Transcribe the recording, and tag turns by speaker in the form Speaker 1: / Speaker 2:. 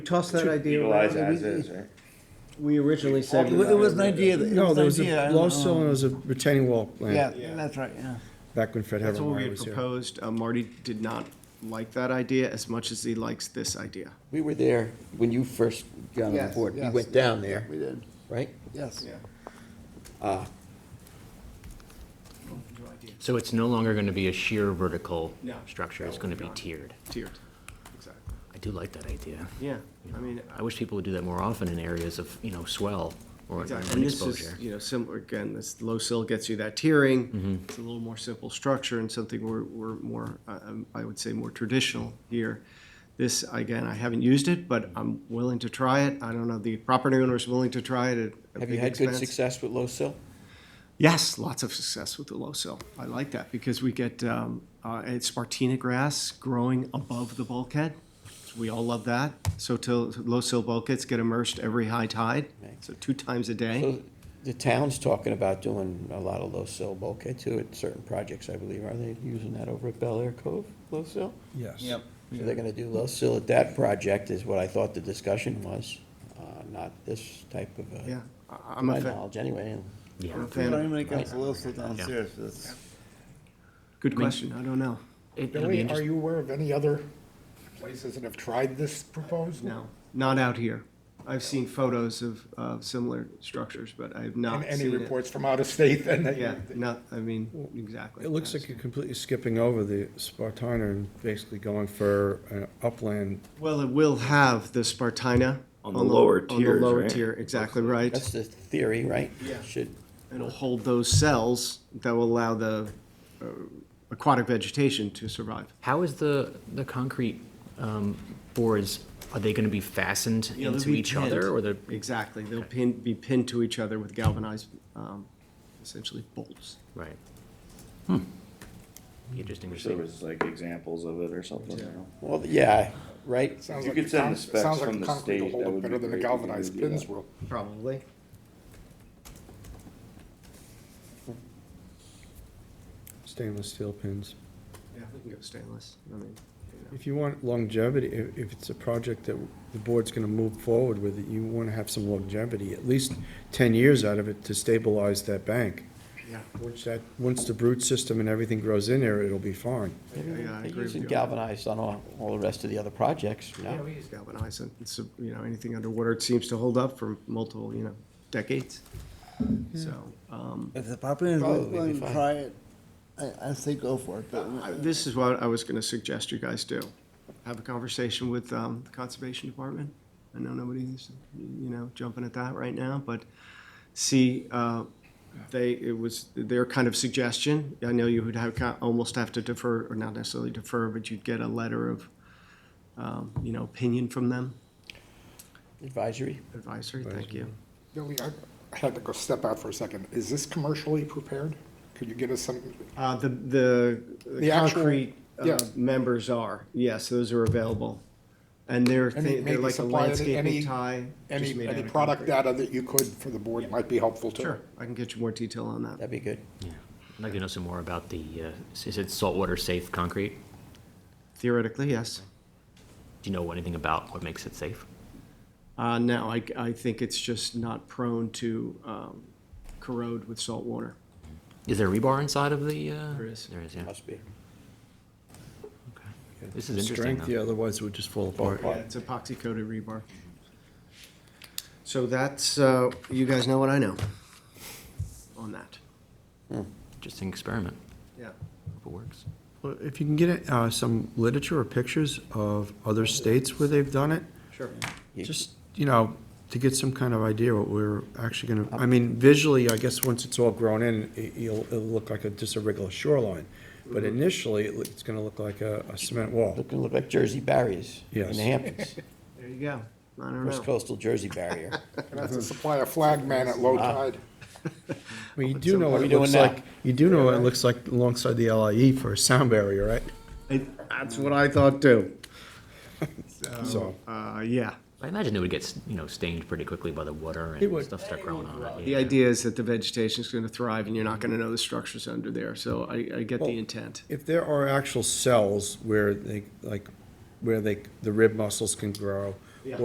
Speaker 1: tossed that idea
Speaker 2: Legalize
Speaker 1: around.
Speaker 2: as
Speaker 1: and
Speaker 2: is,
Speaker 1: we-
Speaker 2: right?
Speaker 1: We originally said.
Speaker 3: It wa- it was an idea that, it
Speaker 4: No,
Speaker 3: was
Speaker 4: there
Speaker 3: an
Speaker 4: was
Speaker 3: idea.
Speaker 4: a,
Speaker 3: and,
Speaker 4: Yellowstone
Speaker 3: um,
Speaker 4: was a retaining wall
Speaker 3: Yeah,
Speaker 4: plan,
Speaker 3: that's right, yeah.
Speaker 4: back when Fred
Speaker 5: That's what we
Speaker 4: Havermeyer
Speaker 5: had
Speaker 4: was here.
Speaker 5: proposed. Uh, Marty did not like that idea as much as he likes this idea.
Speaker 6: We were there when you first got on
Speaker 3: Yes,
Speaker 6: board. We
Speaker 3: yes.
Speaker 6: went down there,
Speaker 3: We did,
Speaker 6: right?
Speaker 3: yes.
Speaker 7: So it's no longer going to be a sheer vertical
Speaker 5: No.
Speaker 7: structure, it's
Speaker 5: No,
Speaker 7: going to be
Speaker 5: not.
Speaker 7: tiered.
Speaker 5: Tiered, exactly.
Speaker 7: I do like that idea.
Speaker 5: Yeah, I mean,
Speaker 7: I wish people would do that more often in areas of, you know, swell or
Speaker 5: Exactly,
Speaker 7: wind
Speaker 5: and this is,
Speaker 7: exposure.
Speaker 5: you know, similar, again, this low sill gets you that tiering. It's a little more simple structure and something we're, we're more, uh, um, I would say, more traditional here. This, again, I haven't used it, but I'm willing to try it. I don't know, the property owner is willing to try it at a
Speaker 6: Have you
Speaker 5: big
Speaker 6: had good
Speaker 5: expense.
Speaker 6: success with low sill?
Speaker 5: Yes, lots of success with the low sill. I like that because we get, um, uh, it's Spartina grass growing above the bulkhead. We all love that. So till, low sill bulkheads get immersed every high tide, so two times a day.
Speaker 6: So The town's talking about doing a lot of low sill bulkhead too at certain projects, I believe. Are they using that over at Bel Air Cove, low sill?
Speaker 4: Yes.
Speaker 6: So they're gonna do low sill at that project is what I thought the discussion was, uh, not this type of
Speaker 5: Yeah, I-
Speaker 6: a, to
Speaker 5: I'm
Speaker 6: my
Speaker 5: a fan.
Speaker 6: knowledge anyway.
Speaker 7: Yeah.
Speaker 5: I'm a
Speaker 3: Why
Speaker 5: fan.
Speaker 3: don't we make us a list of downstairs? That's-
Speaker 5: Good question. I don't know.
Speaker 7: It- it'll be
Speaker 8: Billy, are
Speaker 7: interest-
Speaker 8: you aware of any other places that have tried this proposal?
Speaker 5: No, not out here. I've seen photos of, of similar structures, but I've
Speaker 8: And
Speaker 5: not
Speaker 8: any
Speaker 5: seen it.
Speaker 8: reports from out of state then? that you-
Speaker 5: Yeah, not, I mean, exactly.
Speaker 4: It looks like you're completely skipping over the Spartina and basically going for an upland.
Speaker 5: Well, it will have the Spartina.
Speaker 2: On the lower
Speaker 5: On
Speaker 2: tiers,
Speaker 5: the lower
Speaker 2: right?
Speaker 5: tier, exactly right.
Speaker 6: That's the theory, right?
Speaker 5: Yeah.
Speaker 6: Should,
Speaker 5: It'll hold those cells that will allow the uh, aquatic vegetation to survive.
Speaker 7: How is the, the concrete um, boards, are they going to be fastened
Speaker 5: Yeah, they'll
Speaker 7: into
Speaker 5: be
Speaker 7: each
Speaker 5: pinned.
Speaker 7: other? Or they're,
Speaker 5: Exactly. They'll pin, be pinned to each other with galvanized, um, essentially bolts.
Speaker 7: right. Hmm. Be Interesting to
Speaker 2: There
Speaker 7: see.
Speaker 2: was like examples of it or something, you know?
Speaker 6: well, yeah, right?
Speaker 8: Sounds
Speaker 2: You
Speaker 8: like
Speaker 2: could
Speaker 8: the
Speaker 2: send the
Speaker 8: con-
Speaker 2: specs
Speaker 8: sounds like
Speaker 2: from the
Speaker 8: concrete will
Speaker 2: state,
Speaker 8: hold
Speaker 2: that
Speaker 8: up
Speaker 2: would be
Speaker 8: Better than the
Speaker 2: great if you
Speaker 8: galvanized
Speaker 2: could do
Speaker 8: pins
Speaker 2: that.
Speaker 8: will.
Speaker 5: Probably.
Speaker 4: Stainless steel pins.
Speaker 5: Yeah, we can go stainless. I mean, you know.
Speaker 4: If you want longevity, if, if it's a project that the board's gonna move forward with, it, you wanna have some longevity, at least ten years out of it to stabilize that bank.
Speaker 5: Yeah.
Speaker 4: Once that, once the root system and everything grows in there, it'll be fine.
Speaker 5: Yeah, I
Speaker 6: They're
Speaker 5: agree with
Speaker 6: using
Speaker 5: you.
Speaker 6: galvanized on all, all the rest of the other projects, no?
Speaker 5: Yeah, we use galvanized, and it's, uh, you know, anything underwater, it seems to hold up for multiple, you know, decades. So, um,
Speaker 3: If the property is
Speaker 6: Probably be
Speaker 3: willing to
Speaker 6: fine.
Speaker 3: try it, I, I say go for it, but
Speaker 5: I- this is what I was gonna suggest you guys do. Have a conversation with, um, the Conservation Department. I know nobody's, you know, jumping at that right now, but see, uh, they, it was their kind of suggestion. I know you would have, co- almost have to defer, or not necessarily defer, but you'd get a letter of, um, you know, opinion from them,
Speaker 6: Advisory?
Speaker 5: advisory, thank you.
Speaker 8: Billy, I I had to go step out for a second. Is this commercially prepared? Could you give us some,
Speaker 5: Uh, the, the, the
Speaker 8: The actual-
Speaker 5: concrete, uh,
Speaker 8: yeah.
Speaker 5: members are, yes, those are available. And they're,
Speaker 8: Any-
Speaker 5: they're
Speaker 8: maybe
Speaker 5: like a
Speaker 8: supply any-
Speaker 5: landscaping
Speaker 8: any-
Speaker 5: tie. just
Speaker 8: any,
Speaker 5: made out
Speaker 8: any
Speaker 5: of
Speaker 8: product
Speaker 5: concrete.
Speaker 8: data that you could for the board might be helpful too?
Speaker 5: Sure, I can get you more detail on that.
Speaker 6: That'd be good.
Speaker 7: Yeah. I'd like to know some more about the, uh, is it saltwater safe concrete?
Speaker 5: Theoretically, yes.
Speaker 7: Do you know anything about what makes it safe?
Speaker 5: Uh, no, I, I think it's just not prone to, um, corrode with salt water.
Speaker 7: Is there rebar inside of the? uh,
Speaker 5: There is.
Speaker 7: There is, yeah.
Speaker 6: Must be.
Speaker 7: Okay. This is interesting,
Speaker 4: Strength,
Speaker 7: though.
Speaker 4: yeah, otherwise it would just fall apart.
Speaker 5: Yeah, it's epoxy coated rebar. So that's, uh, you guys know what I know on that.
Speaker 7: Interesting experiment.
Speaker 5: Yeah.
Speaker 7: Hope it works.
Speaker 4: Well, If you can get uh, some literature or pictures of other states where they've done it,
Speaker 5: Sure.
Speaker 4: just, you know, to get some kind of idea what we're actually gonna, I mean, visually, I guess, once it's all grown in, it- it'll, it'll look like a, just a regular shoreline. But
Speaker 6: Mm-hmm.
Speaker 4: initially, it loo- it's gonna look like a a cement wall.
Speaker 6: Looking, look like Jersey barriers in
Speaker 4: Yes.
Speaker 6: the Hamptons.
Speaker 5: There you go. I don't
Speaker 6: First
Speaker 5: know.
Speaker 6: coastal Jersey barrier.
Speaker 8: And that's to supply a flag man at low
Speaker 5: Ah.
Speaker 8: tide.
Speaker 4: I mean, you do know what
Speaker 6: what are
Speaker 4: it
Speaker 6: we
Speaker 4: looks
Speaker 6: doing now?
Speaker 4: like, you do know what it looks like alongside the LIE for a sound barrier, right?
Speaker 5: It- That's what I thought too.
Speaker 6: Oh.
Speaker 4: So,
Speaker 5: Uh, yeah.
Speaker 7: I imagine it would get, you know, stained pretty quickly by the water and
Speaker 4: would.
Speaker 7: stuff start growing on it.
Speaker 5: The idea is that the vegetation is going to thrive and you're not going to know the structures under there. So I, I get the
Speaker 4: Well-
Speaker 5: intent.
Speaker 4: if there are actual cells where they, like, where they, the rib muscles can grow,